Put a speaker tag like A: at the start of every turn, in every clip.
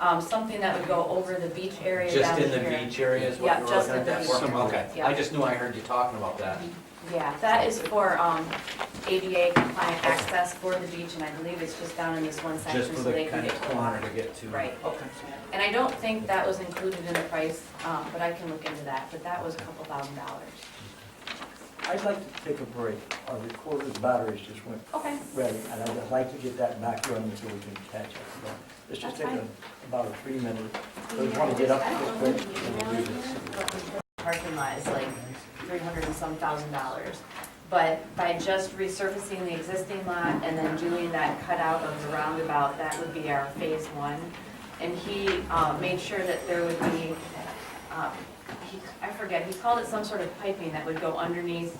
A: um, something that would go over the beach area
B: Just
A: down
B: in the
A: here.
B: beach area is
A: Yeah,
B: what you were
A: just
B: looking at
A: in the
B: that
A: beach
B: for?
C: area.
B: Okay,
A: Yeah.
B: I just knew I heard you talking about that.
A: Yeah, that is for um, ADA compliant access for the beach, and I believe it's just down in this one
B: Just
A: section
B: for
A: so
B: the
A: they can
B: kind
A: get
B: of
A: to the
B: corner
A: water.
B: to get to.
A: Right.
B: Okay.
A: And I don't think that was included in the price, um, but I can look into that, but that was a couple thousand dollars.
C: I'd like to take a break. Our recorder's batteries just went
A: Okay,
C: ready, and I'd like to get that back running so we can catch up. Let's just take
A: That's
C: a- about a three minute, we want to get up just quick. and do this.
A: parking lot is like three hundred and some thousand dollars. But by just resurfacing the existing lot and then doing that cutout of the roundabout, that would be our phase one. And he uh, made sure that there would be, um, he- I forget, he called it some sort of piping that would go underneath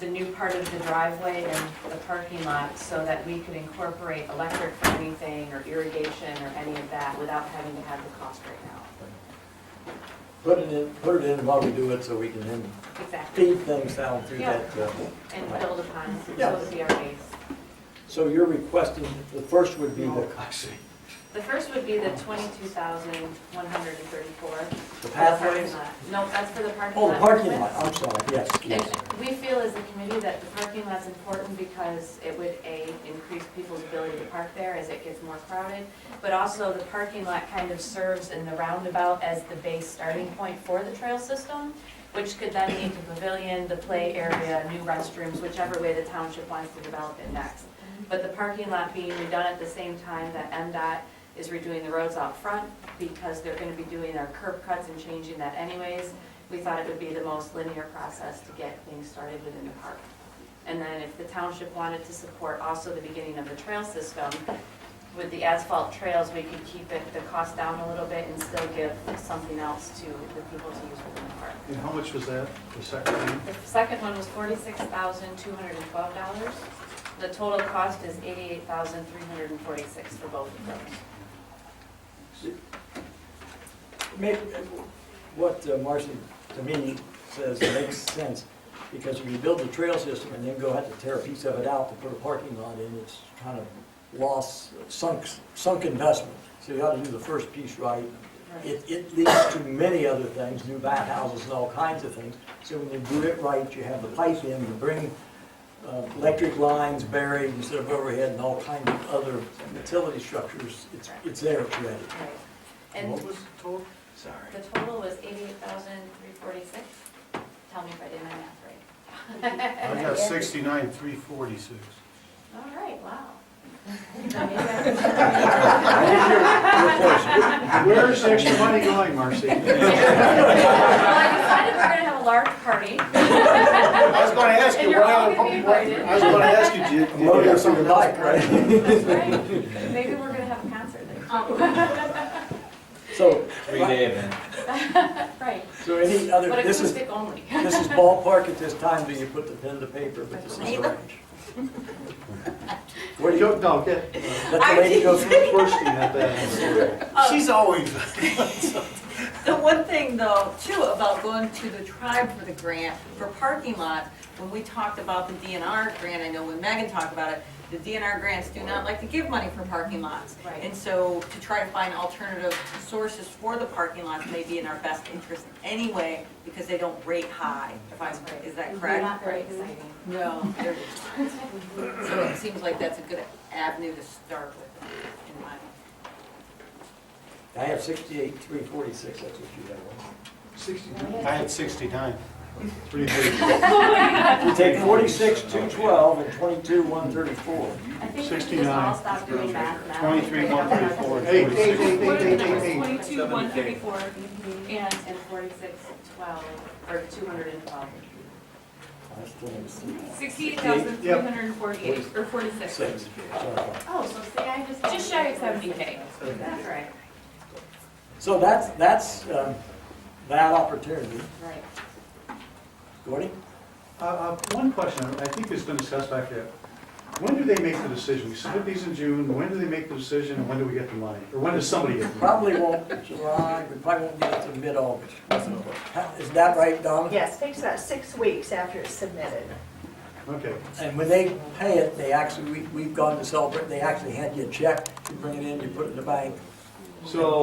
A: the new part of the driveway and the parking lot so that we could incorporate electric for anything or irrigation or any of that without having to have the cost right now.
C: Put it in, put it in while we do it so we can then
A: Exactly.
C: feed things down through
A: Yeah.
C: that. uh,
A: And build upon,
C: Yeah.
A: so be our base.
C: So you're requesting, the first would be the,
A: The first would be the twenty-two thousand, one hundred and thirty-four.
C: the pathways?
A: No, that's for the parking lot.
C: Oh, the parking lot, I'm sorry, yes,
A: And
C: yes.
A: we feel as a committee that the parking lot's important because it would, A, increase people's ability to park there as it gets more crowded, but also the parking lot kind of serves in the roundabout as the base starting point for the trail system, which could then lead to pavilion, the play area, new restrooms, whichever way the township wants to develop it next. But the parking lot being redone at the same time that MDOT is redoing the roads out front, because they're gonna be doing their curb cuts and changing that anyways, we thought it would be the most linear process to get things started within the park. And then if the township wanted to support also the beginning of the trail system, with the asphalt trails, we could keep it, the cost down a little bit and still give something else to the people to use within the park.
D: And how much was that, the second one?
A: The second one was forty-six thousand, two hundred and twelve dollars. The total cost is eighty-eight thousand, three hundred and forty-six for both of those.
C: Maybe, what uh, Marcy, to me, says makes sense, because if you build the trail system and then go have to tear a piece of it out to put a parking lot in, it's kind of lost, sunk, sunk investment. So you ought to do the first piece right. It, it leads to many other things, new bathhouses and all kinds of things. So when you do it right, you have the pipe in, you bring uh, electric lines buried instead of overhead and all kinds of other utility structures. It's, it's there, it's ready.
A: Right.
D: What
A: And
D: was the total?
C: Sorry.
A: the total was eighty-eight thousand, three forty-six. Tell me if I did my math right.
D: I got sixty-nine, three forty-six.
A: All right, wow.
D: Where's the extra money going, Marcy? I
A: Well, I decided we're gonna have a large party.
D: was gonna ask
A: And
D: you,
A: you're
D: why,
A: all
D: I
A: gonna be invited.
D: was gonna ask you, did did you have something else?
C: right?
A: That's right. Maybe we're gonna have a concert
E: Um,
A: there.
C: So,
B: Three-day event.
A: Right,
C: so any other,
A: but
C: this is,
A: acoustic only.
C: this is ballpark at this time, do you put the pen to paper, but this is the range. Where do you,
D: Go- No, get,
C: let the lady go through?
D: bursting at that.
F: She's always. The one thing though, too, about going to the tribe for the grant, for parking lots, when we talked about the DNR grant, I know when Megan talked about it, the DNR grants do not like to give money for parking lots.
A: Right.
F: And so to try to find alternative sources for the parking lots may be in our best interest anyway, because they don't rate high, if I'm, is that correct?
A: Not very exciting.
F: No. they're- So it seems like that's a good avenue to start with, in my.
C: I have sixty-eight, three forty-six, that's what you have.
D: Sixty-nine, I had sixty-nine, three forty-six.
C: You take forty-six, two twelve, and twenty-two, one thirty-four.
A: I think we should just all stop doing math now.
D: 23, 134, Hey, hey, 46.
A: And
D: hey, hey,
E: What are the
D: hey,
E: numbers?
D: hey, hey.
E: Twenty-two, one thirty-four, and
A: forty-six, twelve, or two hundred and twelve.
C: I still haven't seen that.
E: sixty-eight thousand, three hundred and forty-eight, or forty-six.
C: Six. Sorry.
A: Oh, so see, I just.
E: Just shy of seventy K.
A: That's right,
C: So that's, that's, um, that opportunity.
A: right.
C: Gordy?
D: Uh, uh, One question, I think it's been assessed back there. When do they make the decision? We submit these in June, when do they make the decision, and when do we get the money? Or when does somebody get the money?
C: Probably won't, July, we probably won't get it to mid-August. Is that right, Donna?
G: Yes, takes about six weeks after it's submitted.
D: Okay.
C: And when they pay it, they actually, we, we've gone to celebrate, they actually hand you a check, you bring it in, you put it in the bank,
D: So